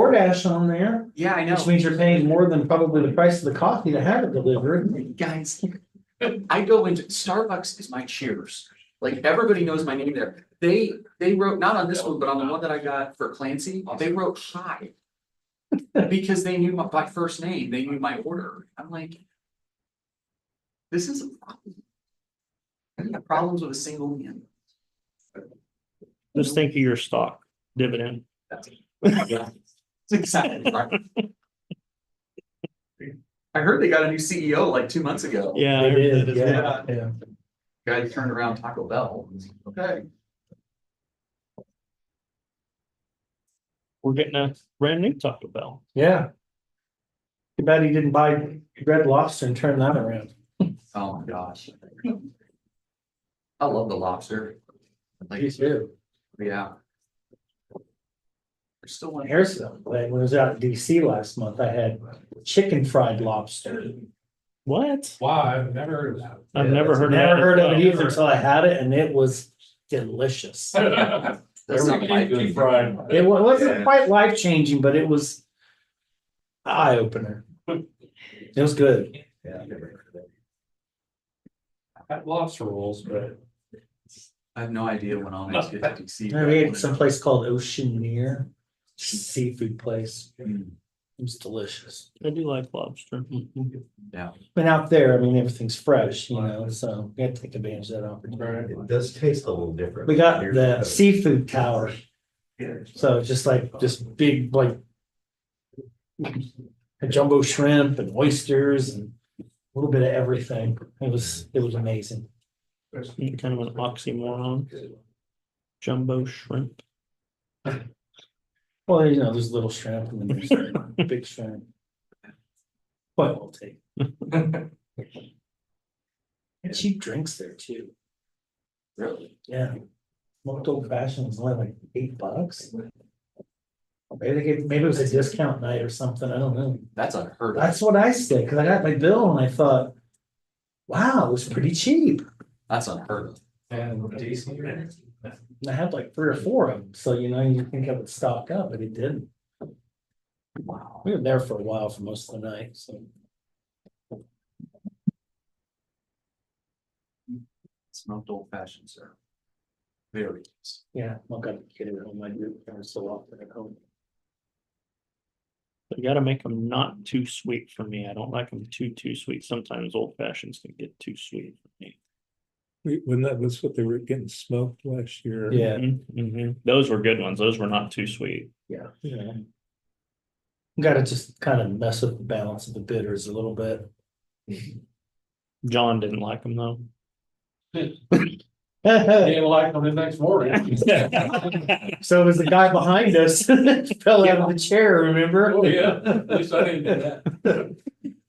DoorDash on there, Yeah, I which know. means you're paying more than probably the price of the coffee to have it delivered. Guys, I go into Starbucks is my cheers. Like everybody knows my name there. They, they wrote, not on this one, but on the one that I got for Clancy, they wrote hi. Because they knew my, by first name, they knew my order. I'm like. This is a problem. I have problems with a single man. Just think of your stock dividend. That's That's exactly right. I heard they got a new CEO like two months ago. Yeah. They I heard did, that as well. yeah, yeah. Guy turned around Taco Bell. Okay. We're getting a brand new Taco Bell. Yeah. Too bad he didn't buy Red Lobster and turn that around. Oh my gosh. I love the lobster. Like, too. yeah. There's still one here. Harrison, when I was out in DC last month, I had chicken fried lobster. What? Wow, I've never heard of that. I've never heard of that. Never heard of it either Never. until I had it and it was delicious. That's not my Everything's fried. It wa- wasn't Yeah. quite life changing, but it was eye opener. It was good. Yeah, I've never heard of that. I had lobster rolls, but I have no idea when I'll next get to DC. I ate at some place called Oceaneer seafood place. Mm, It was delicious. I do like lobster. Hmm. Yeah. But out there, I mean, everything's fresh, you know, so we had to take advantage of that opportunity. It does taste a little different. We got the seafood tower, Yeah. so it's just like, just big, like jumbo shrimp and oysters and a little bit of everything. It was, it was amazing. Kind of an oxymoron. Jumbo shrimp. Well, you know, there's little shrimp and then there's big shrimp. Quite well taken. And cheap drinks there too. Really? Yeah. Smoked old fashioned was only like eight bucks. Maybe they gave, maybe it was a discount night or something. I don't know. That's unheard of. That's what I said, because I got my bill and I thought, wow, it was pretty cheap. That's unheard of. and decent. And I had like three or four of them. So, you know, you think I would stock up, but it didn't. Wow. We were there for a while for most of the night, so. Smoked old fashioned, sir. Very. nice. Yeah, I've got a kid at home, I do, every so often at home. You gotta make them not too sweet for me. I don't like them too, too sweet. Sometimes old fashions can get too sweet for me. We- When that was what they were getting smoked last year. Yeah, Mhm. Those were good ones. Those were not too sweet. yeah, yeah. Gotta just kind of mess with the balance of the bitters a little bit. John didn't like them though. They didn't like them the next morning. So it was the guy behind us, fell out of the chair, remember? Oh, yeah, at least I didn't do that.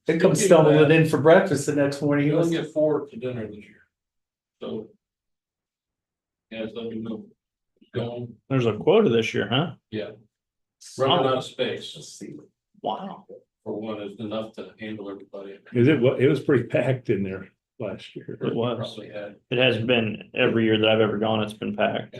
They come stumbling in for breakfast the next morning, You he only was, get four for dinner this year. So. Yeah, so you know. Going, There's a quota this year, huh? yeah, running Wow. out of space Let's see. Wow. for one is enough to handle everybody. Cause it was, it was pretty packed in there last year. It was. Probably had. It has been every year that I've ever gone, it's been packed.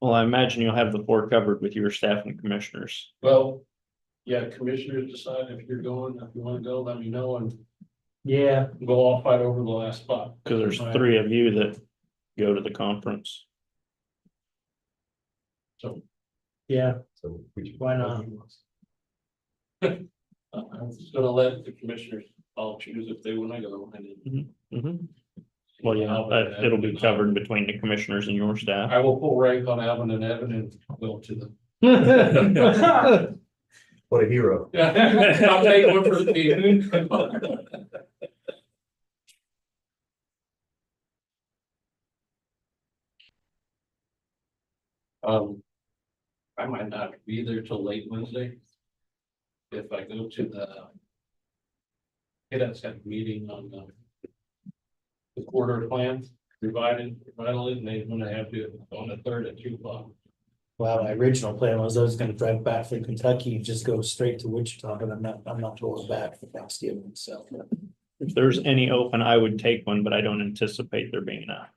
Well, I imagine you'll have the board covered with your staff and commissioners. Well, yeah, commissioners decide if you're going, if you wanna go, let me know and yeah, we'll all fight over the last spot. Cause Right. there's three of you that go to the conference. So. yeah, So, would you- why not? uh, I'm just gonna let the commissioners all choose if they wanna go and then. Mhm. Well, yeah, that- it'll be covered between the commissioners and your staff. I will pull rank on Alvin and Evan and go to them. What a hero. Yeah, I'll take one for the team. Um, I might not be there till late Wednesday. If I go to the. Get us a meeting on the. The quarter plan, provided, provided, and they're gonna have to on the third at two o'clock. Well, my original plan was I was gonna drive back from Kentucky and just go straight to Wichita, but I'm not, I'm not going back for Thanksgiving, so. If there's any open, I would take one, but I don't anticipate there being a